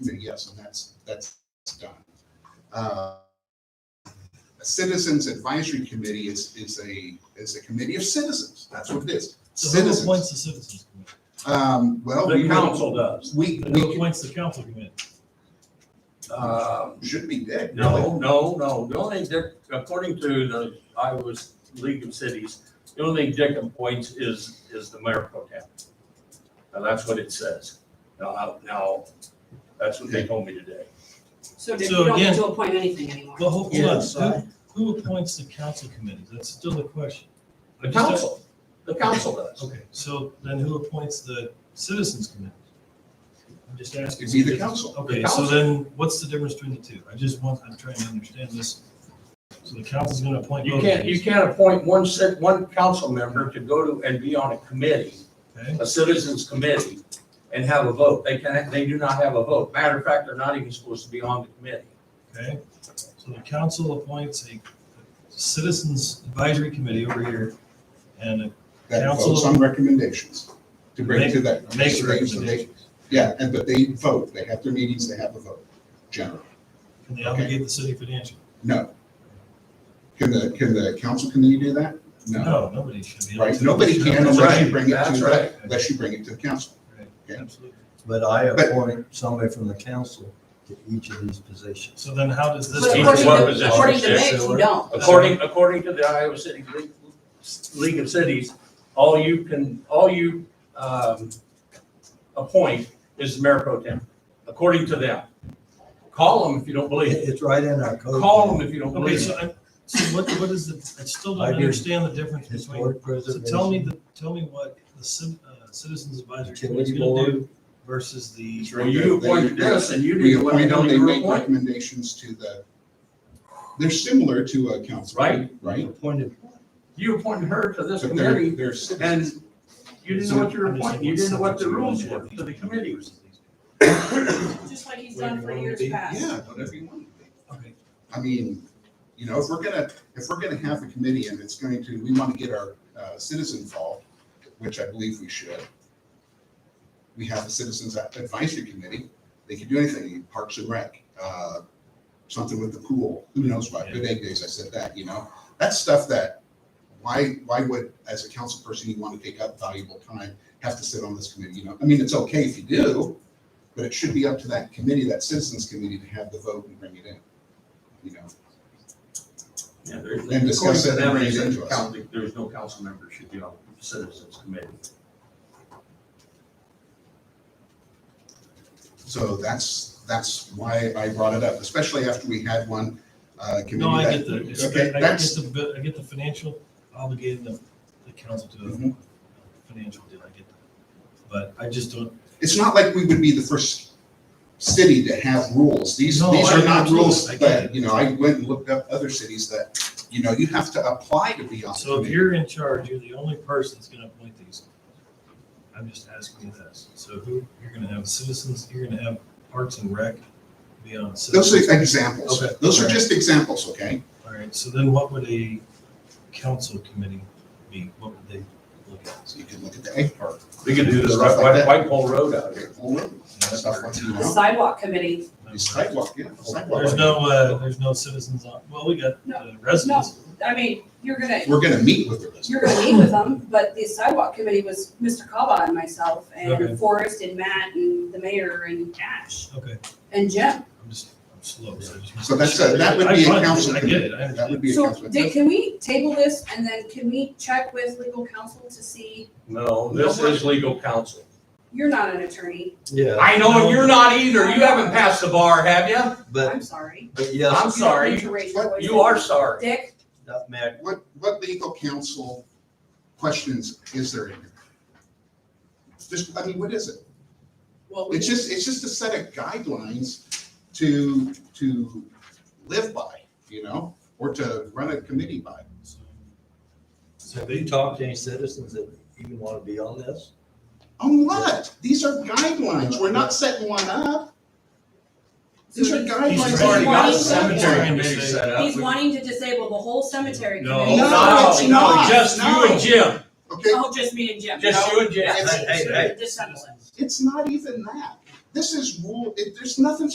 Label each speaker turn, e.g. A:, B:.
A: yes, and that's, that's done. Uh, A Citizens Advisory Committee is, is a, is a committee of citizens, that's what it is,
B: So who
A: citizens.
B: appoints the citizens committee?
A: Um, well, we
C: The
A: have,
C: council does.
A: we,
B: But
A: we
B: Who
A: can-
B: appoints the council committee?
C: Uh,
A: should be dead.
C: No, no, no. The only, dic- according to the Iowa League of Cities, the only thing Dick appoints is, is the mayor pro tem. Now, that's what it says. Now, now, that's what they told me today.
D: So Dick,
B: So
D: you don't
B: again-
D: need to appoint anything anymore.
B: Well, hold
C: Yeah,
B: on,
C: so-
B: who, who appoints the council committee? That's still the question.
C: The council, the council does.
B: Okay, so then who appoints the citizens committee? I'm just asking.
A: It'd be the council.
B: Okay,
C: The
B: so
C: council.
B: then what's the difference between the two? I just want, I'm trying to understand this. So the council's gonna appoint
C: You
B: both of
C: can't, you
B: these,
C: can't appoint one cit, one council member to go to and be on a committee,
B: okay?
C: a citizens committee, and have a vote. They can, they do not have a vote. Matter of fact, they're not even supposed to be on the committee.
B: Okay, so the council appoints a citizens advisory committee over here and it
A: That
B: Council-
A: votes on recommendations to bring to that.
B: makes
A: so they- so they-
B: recommendations.
A: Yeah, and, but they vote, they have their meetings, they have a vote, generally.
B: Can they obligate the city financially?
A: No. Can the, can the council committee do that? No,
B: No, nobody should be. able
A: right,
B: to.
A: nobody can
C: That's
A: unless you
C: right.
A: bring it to,
C: That's
A: the-
C: right.
A: unless you bring it to the council.
B: Right,
A: Okay.
B: Absolutely.
E: But I
A: But-
E: appoint somebody from the council to each of these positions.
B: So then how does this?
D: But
C: Each
D: according
C: one
D: to-
C: position
D: According to
C: is
D: Mick, you
C: filled.
D: don't.
C: According, according to the Iowa City League, League of Cities, all you can, all you, um, appoint is the mayor pro tem, according to them. Call them if you don't believe it.
E: It's right in our code.
C: Call them if you don't
B: Okay,
C: believe
B: so
C: it.
B: I, so what, what is the, I still
E: I
B: don't
E: do.
B: understand the difference
E: It's
B: between,
E: board
B: so
E: preservation.
B: tell me the, tell me what the ci- uh, citizens advisory committee's
E: Utility
B: gonna do
E: board.
B: versus the,
A: It's
C: Well,
A: right
C: you
A: there. They-
C: appointed this and you
A: We
C: didn't want to
A: appoint
C: know
A: them, they
C: you were
A: make
C: appointed.
A: recommendations to the, they're similar to a council.
C: Right.
A: Right?
E: Appointed.
C: You appointed her to this
A: But they're-
C: committee
A: They're citizens.
C: and you didn't know what you were appointing. You didn't know what the rules were
B: for
C: for the committee.
D: Just like he's done for years past.
A: Yeah, whatever you want.
B: Okay,
A: I mean, you know, if we're gonna, if we're gonna have a committee and it's going to, we want to get our uh, citizen involved, which I believe we should. We have a citizens advisory committee. They can do anything, Parks and Rec, uh, something with the pool, who knows what, good egg days, I said that, you know? That's stuff that, why, why would, as a council person, you want to take up valuable time, have to sit on this committee, you know? I mean, it's okay if you do, but it should be up to that committee, that citizens committee, to have the vote and bring it in, you know?
C: Yeah, there's-
A: And discuss
C: according
A: it
C: to
A: and bring
C: them,
A: it
C: there's
A: into us.
C: council- There's no council member should be on the citizens committee.
A: So that's, that's why I brought it up, especially after we had one uh, committee.
B: no, I
A: that-
B: get the, it's-
A: Okay,
B: I get
A: that's,
B: the, bit- I get the financial obligating the, the council to
A: Mhm.
B: a financial deal, I get that. But I just don't,
A: it's not like we would be the first city to have rules. These,
B: No,
A: these
B: I-
A: are not
B: absolutely,
A: rules
B: I get
A: that,
B: it.
A: you know, I went and looked up other cities that, you know, you have to apply to be on. the
B: so if
A: committee.
B: you're in charge, you're the only person that's gonna appoint these. I'm just asking you this, so who, you're gonna have citizens, you're gonna have Parks and Rec be on
A: Those
B: citizens.
A: are examples.
B: Okay.
A: Those are
B: Alright.
A: just examples, okay?
B: All right, so then what would a council committee be? What would they look at?
A: So you can look at the egg part.
C: We could do this
A: Stuff
C: right,
A: like that.
C: White- White Pole Road out
A: okay,
C: here.
A: well, look, Stuff like, that, you
D: The
A: know,
D: sidewalk committee,
A: these sidewalk, yeah, sidewalk.
B: There's no, uh, there's no citizens on, well, we got uh, residents.
D: I mean, you're gonna,
A: We're gonna meet with the residents.
D: you're gonna meet with them, but the sidewalk committee was Mr. Kaba and myself
B: Okay.
D: and Forrest and Matt and the mayor and Ash
B: Okay,
D: and Jim.
B: I'm just, I'm slow, so I just.
A: So that's a- that would
B: I-
A: be a
B: I-
A: council
B: I get it, I
A: That would
B: understand.
A: be a
D: So
A: council.
D: Dick, can we table this and then can we check with legal counsel to see,
C: No, this is legal counsel.
D: you're not an attorney,
E: Yeah,
C: I know, and you're not either. You haven't passed the bar, have you?
E: but,
D: I'm sorry.
E: but yes,
C: Uh, I'm
D: You don't
C: sorry.
D: need to raise your voice.
C: You are sorry.
D: Dick,
E: that man,
A: What, what legal counsel questions is there in here? Just, I mean, what is it?
D: well, we
A: It's just, it's just a set of guidelines to, to live by, you know, or to run a committee by.
E: have you talked to any citizens that even want to be on this?
A: On what? These are guidelines. We're not setting one up. These are guidelines.
B: He's
A: that
B: already
A: you
B: got
A: want
B: a
A: to set
B: cemetery
A: for.
B: in committee set
D: He's wanting to disable the whole cemetery
C: Uh, No,
D: committee.
A: No,
C: no,
A: it's
C: no,
A: not.
C: just you and Jim.
A: Okay,
D: Oh, just me and Jim.
C: Just
D: No.
C: you and Jim.
D: Yeah,
E: Hey, hey,
D: Disassemble it.
A: it's not even that. This is rule, it, there's nothing